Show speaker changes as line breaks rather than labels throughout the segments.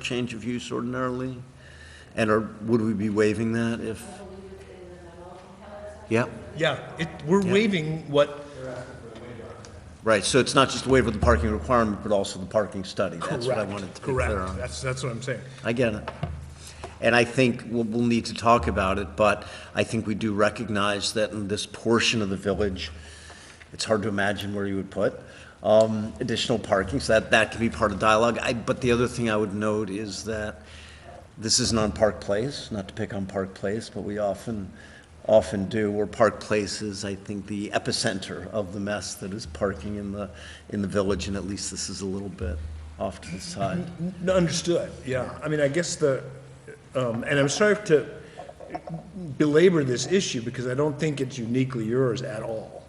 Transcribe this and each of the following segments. change of use ordinarily? And or would we be waiving that if? Yeah,
Yeah, it, we're waiving what,
right, so it's not just a waiver of the parking requirement, but also the parking study. That's what I wanted
correct,
to be clear
correct.
on.
That's, that's what I'm saying.
I get it. And I think we'll, we'll need to talk about it, but I think we do recognize that in this portion of the village, it's hard to imagine where you would put um, additional parking, so that, that can be part of dialogue. I, but the other thing I would note is that this isn't on Park Place, not to pick on Park Place, but we often, often do, where Park Place is, I think, the epicenter of the mess that is parking in the, in the village, and at least this is a little bit off to the side.
N- Understood, yeah. I mean, I guess the, um, and I'm sorry to belabor this issue because I don't think it's uniquely yours at all.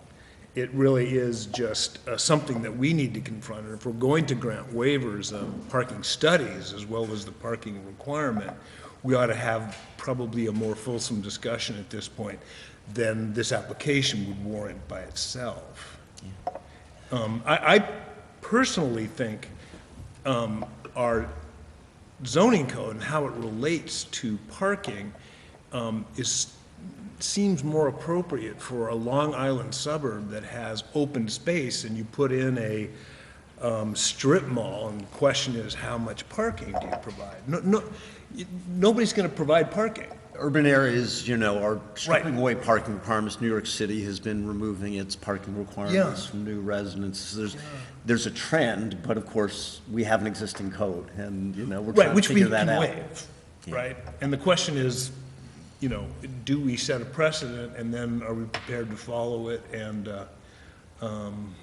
It really is just uh, something that we need to confront. And if we're going to grant waivers of parking studies as well as the parking requirement, we ought to have probably a more fulsome discussion at this point than this application would warrant by itself. Um, I, I personally think um, our zoning code and how it relates to parking um, is, seems more appropriate for a Long Island suburb that has open space and you put in a um, strip mall and the question is, how much parking do you provide? No, no, y- nobody's going to provide parking.
Urban areas, you know, are stripping away parking requirements. New York City has been removing its parking requirements
Yeah.
from new residences. There's, there's a trend, but of course, we have an existing code, and, you know, we're
Right,
trying to
which we
figure that
can
out.
waive, right? And the question is, you know, do we set a precedent, and then are we prepared to follow it? And uh, um,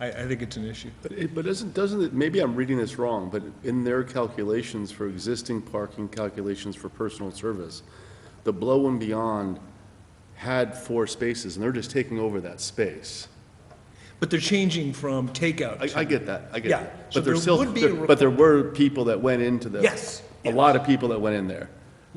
I, I think it's an issue.
But it- But isn't, doesn't it, maybe I'm reading this wrong, but in their calculations for existing parking calculations for personal service, the Blow and Beyond had four spaces, and they're just taking over that space.
But they're changing from takeout
I,
to...
I get that, I get
Yeah,
that.
so
But there's
there
still,
would be a
there- but there were people that went into the.
Yes,
A
yes.
lot of people that went in there,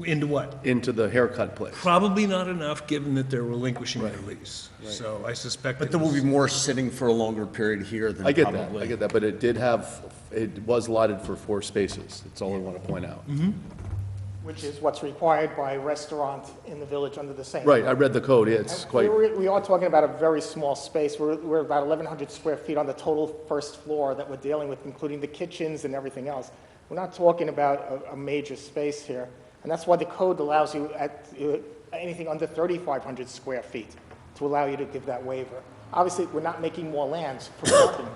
Into what?
into the haircut place.
Probably not enough, given that they're relinquishing their lease. So I suspect...
But
it
there will be
was-
more sitting for a longer period here than
I
probably.
get that, I get that, but it did have, it was allotted for four spaces, that's all I want to point out.
Mm-hmm.
Which is what's required by restaurant in the village under the same.
Right, I read the code, it's quite.
We're- We are talking about a very small space. We're, we're about 1,100 square feet on the total first floor that we're dealing with, including the kitchens and everything else. We're not talking about a, a major space here. And that's why the code allows you at, uh, anything under 3,500 square feet to allow you to give that waiver. Obviously, we're not making more lands for parking.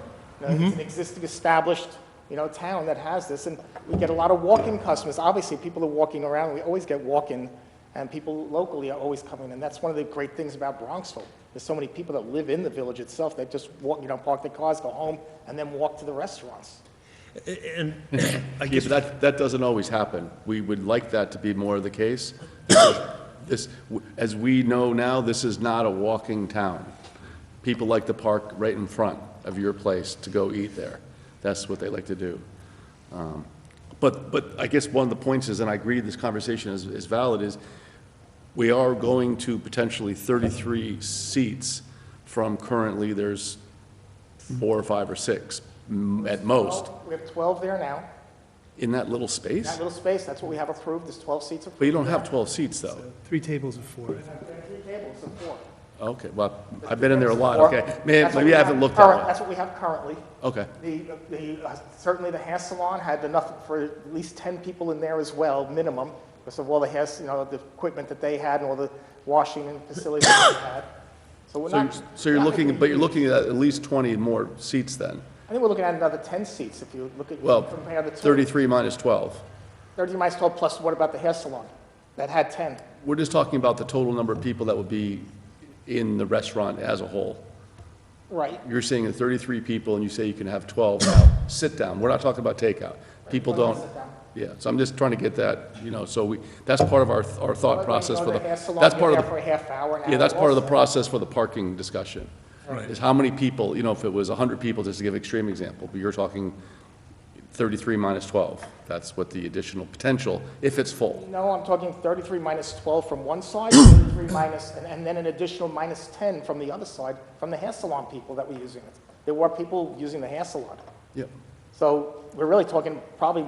You know,
Mm-hmm.
It's an existing established, you know, town that has this, and we get a lot of walk-in customers. Obviously, people are walking around, we always get walk-in, and people locally are always coming, and that's one of the great things about Bronxville. There's so many people that live in the village itself, that just walk, you know, park their cars, go home, and then walk to the restaurants.
And I
Yeah,
guess
but that, that doesn't always happen. We would like that to be more the case. This, as we know now, this is not a walking town. People like to park right in front of your place to go eat there. That's what they like to do. Um, But, but I guess one of the points is, and I agree this conversation is, is valid, is we are going to potentially 33 seats from currently there's four or five or six m- at most
Well, We have 12 there now.
in that little space.
That little space, that's what we have approved, there's 12 seats approved.
But you don't have 12 seats, though.
Three tables of four.
There are three tables of four.
Okay, well, I've been in there a lot,
Or-
okay. May-
that's what
Maybe
we
I haven't
have
looked
current-
at
That's
one.
what we have currently.
Okay,
The, the, uh, certainly the hair salon had enough for at least 10 people in there as well, minimum, because of all the hair, you know, the equipment that they had and all the washing and facilities that they had. So we're
so, you're-
not.
so you're
I think
looking,
we-
but you're looking at at least 20 more seats then?
I think we're looking at another 10 seats if you look at,
Well,
compare the two.
33 minus 12.
30 minus 12 plus what about the hair salon? That had 10.
We're just talking about the total number of people that would be in the restaurant as a whole.
Right.
You're saying that 33 people, and you say you can have 12 now. Sit down, we're not talking about takeout. People don't, yeah, so I'm just trying to get that, you know, so we, that's part of our, th- our thought process for the, that's part of the.
For a half hour, an
Yeah, that's part of the
hour also.
process for the parking discussion.
Right.
Is how many people, you know, if it was 100 people, just to give extreme example, but you're talking 33 minus 12. That's what the additional potential, if it's full.
No, I'm talking 33 minus 12 from one side, 33 minus, and- and then an additional minus 10 from the other side, from the hair salon people that were using it. There were people using the hair salon.
Yep.
So we're really talking probably